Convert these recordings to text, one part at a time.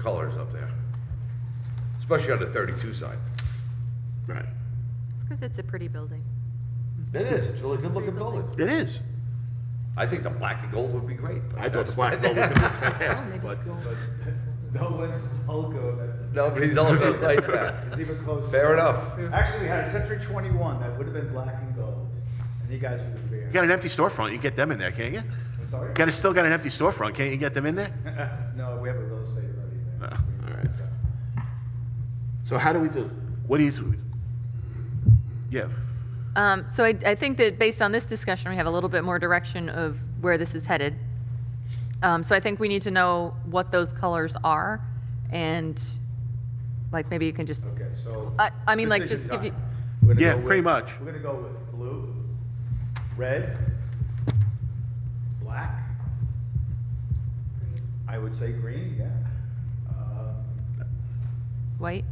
colors up there, especially on the 32 side. Right. It's because it's a pretty building. It is, it's a really good-looking building. It is. I think the black and gold would be great. but I thought the that's- black gold was gonna be Oh, fantastic, maybe but gold. No one's Telco that Nobody's all about like that. is even close. Fair enough. Actually, we had a Century 21 that would have been black and gold, and you guys would have you been. got an empty storefront, you can get them in there, can't you? I'm sorry? Got, still got an empty storefront, can't you get them in there? No, we have a real estate already there. Oh, all right. So how do we do, what is, yeah, Um, So I, I think that based on this discussion, we have a little bit more direction of where this is headed. Um, So I think we need to know what those colors are, and, like, maybe you can just, Okay, so. I- I mean, like, decision just if time. you- We're gonna Yeah, go with- pretty much. We're gonna go with blue, red, black. I would say green, yeah. Um, white?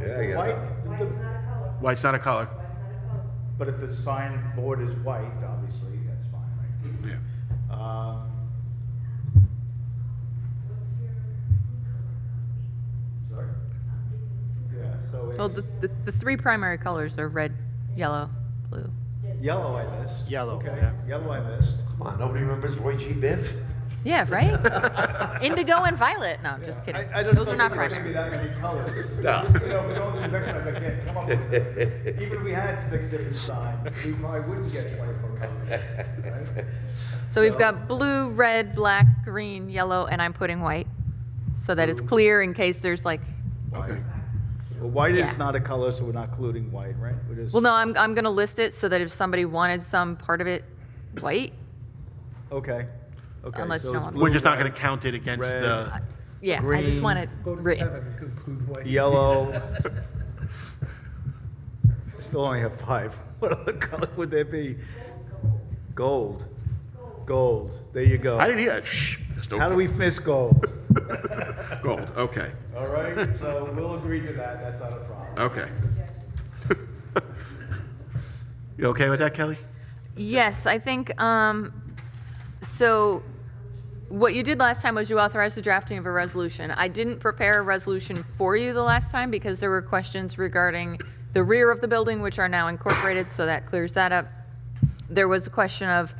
Yeah, yeah. White, the- white's not a color? but if the sign board is white, obviously, that's fine, right? Yeah. Um, Sorry? Yeah, so Well, Oh, the, it's the- the three primary colors are red, yellow, blue. yellow I missed. Yellow, Okay, yeah. yellow I missed. Come on, nobody remembers Roy G. Biv? Yeah, right? Indigo and violet, no, I'm just kidding. I- I just Those are don't not think there's gonna primary. be that many colors. No. You know, we don't do exercise, I can't come up with it. Even if we had six different signs, we probably wouldn't get twenty-four colors, right? So we've got blue, red, black, green, yellow, and I'm putting white, so that it's clear in case there's like, Okay. Well, white is Yeah. not a color, so we're not including white, right? well, no, I'm, I'm gonna list it so that if somebody wanted some part of it white, Okay, okay. Unless you so don't it's want- blue, We're just not gonna red, count it against red, the, yeah, I just want it Green. Go to written. seven, conclude white. Yellow. I Still only have five. What other color would there be? Gold. Gold. There you go. I didn't hear, shh. just How do open. we miss gold? Gold, okay, All right, so we'll agree to that. That's not a problem. okay. You okay with that, Kelly? Yes, I think, um, so what you did last time was you authorized the drafting of a resolution. I didn't prepare a resolution for you the last time because there were questions regarding the rear of the building, which are now incorporated, so that clears that up. There was a question of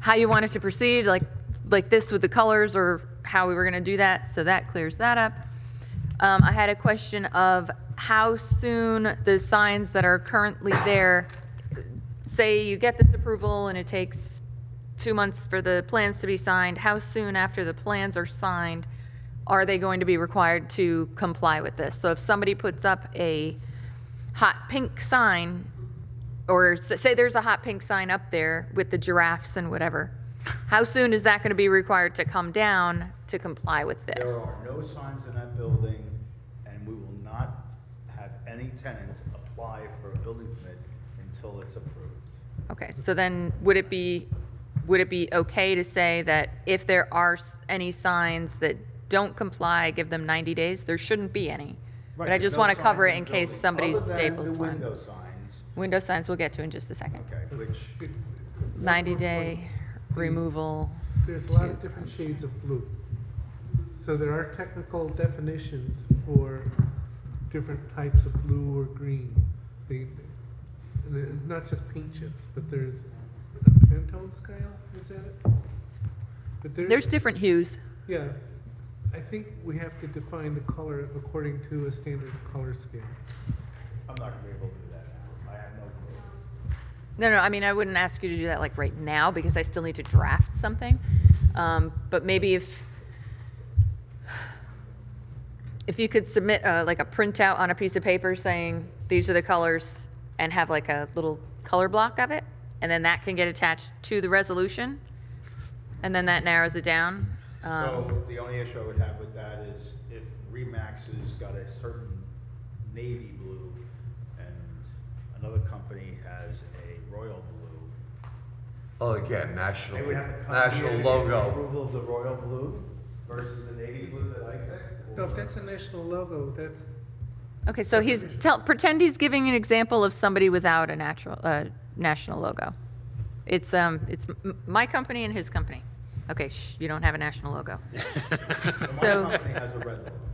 how you wanted to proceed, like, like this with the colors or how we were gonna do that, so that clears that up. Um, I had a question of how soon the signs that are currently there say you get this approval and it takes two months for the plans to be signed, how soon after the plans are signed are they going to be required to comply with this? So if somebody puts up a hot pink sign, or s- say there's a hot pink sign up there with the giraffes and whatever, how soon is that going to be required to come down to comply with this? There are no signs in that building, and we will not have any tenant apply for a building permit until it's approved. Okay, so then would it be, would it be okay to say that if there are s- any signs that don't comply, give them 90 days? There shouldn't be any. But I Right, just no want to signs cover in it in the case building, somebody other than staples The window one. signs, Window signs, we'll get to in just a second. okay, which 90-day removal. There's a lot of different shades of blue. So there are technical definitions for different types of blue or green. They, and they're not just paint chips, but there's a Pantone scale, is that it? But there- There's different hues. Yeah, I think we have to define the color according to a standard color scale. I'm not gonna be able to do that now. I have no clue. No, no, I mean, I wouldn't ask you to do that like right now because I still need to draft something. Um, But maybe if, if you could submit uh, like a printout on a piece of paper saying, these are the colors and have like a little color block of it, and then that can get attached to the resolution, and then that narrows it down. um, So the only issue I would have with that is if Remax has got a certain navy blue and another company has a royal blue. Oh, again, They national, would have to come here national to get logo. Approval of the royal blue versus the navy blue that I picked? No, or- if that's a national logo, that's, Okay, so he's, tell, pretend he's giving an example of somebody without a natural, uh, national logo. It's, um, it's m- my company and his company. Okay, shh, you don't have a national logo. My So, company has a red logo.